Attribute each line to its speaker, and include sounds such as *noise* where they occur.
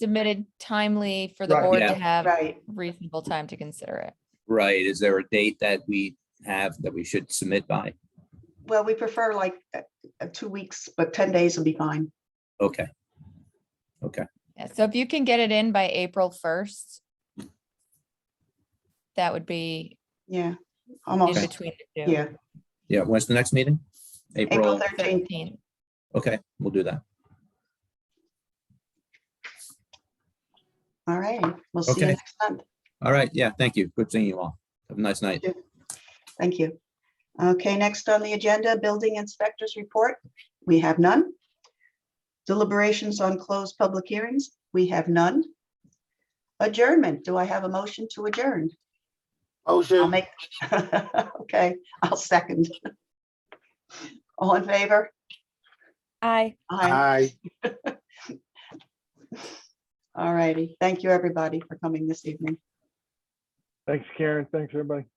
Speaker 1: submitted timely for the
Speaker 2: Right.
Speaker 1: board
Speaker 3: Yeah.
Speaker 1: to have
Speaker 2: Right.
Speaker 1: reasonable time to consider it.
Speaker 3: Right, is there a date that we have that we should submit by?
Speaker 2: Well, we prefer like uh, uh, two weeks, but 10 days will be fine.
Speaker 3: Okay,
Speaker 1: Yeah, so if you can get it in by April first, that would be
Speaker 2: Yeah.
Speaker 1: in
Speaker 2: Almost.
Speaker 1: between the two.
Speaker 2: Yeah.
Speaker 3: yeah, when's the next meeting?
Speaker 2: April
Speaker 3: April,
Speaker 2: 13th.
Speaker 1: 13.
Speaker 3: okay, we'll do that.
Speaker 2: All right. We'll see you
Speaker 3: Okay.
Speaker 2: next month.
Speaker 3: All right, yeah, thank you. Good seeing you all. Have a nice night.
Speaker 2: Thank you. Okay, next on the agenda, building inspectors report. We have none. Deliberations on closed public hearings. We have none. Adjournment. Do I have a motion to adjourn? I'll
Speaker 4: Motion,
Speaker 2: make, *laughs* okay, I'll second. All in favor?
Speaker 1: Aye.
Speaker 2: Aye.
Speaker 4: aye.
Speaker 2: All righty. Thank you, everybody, for coming this evening.
Speaker 5: Thanks, Karen. Thanks, everybody.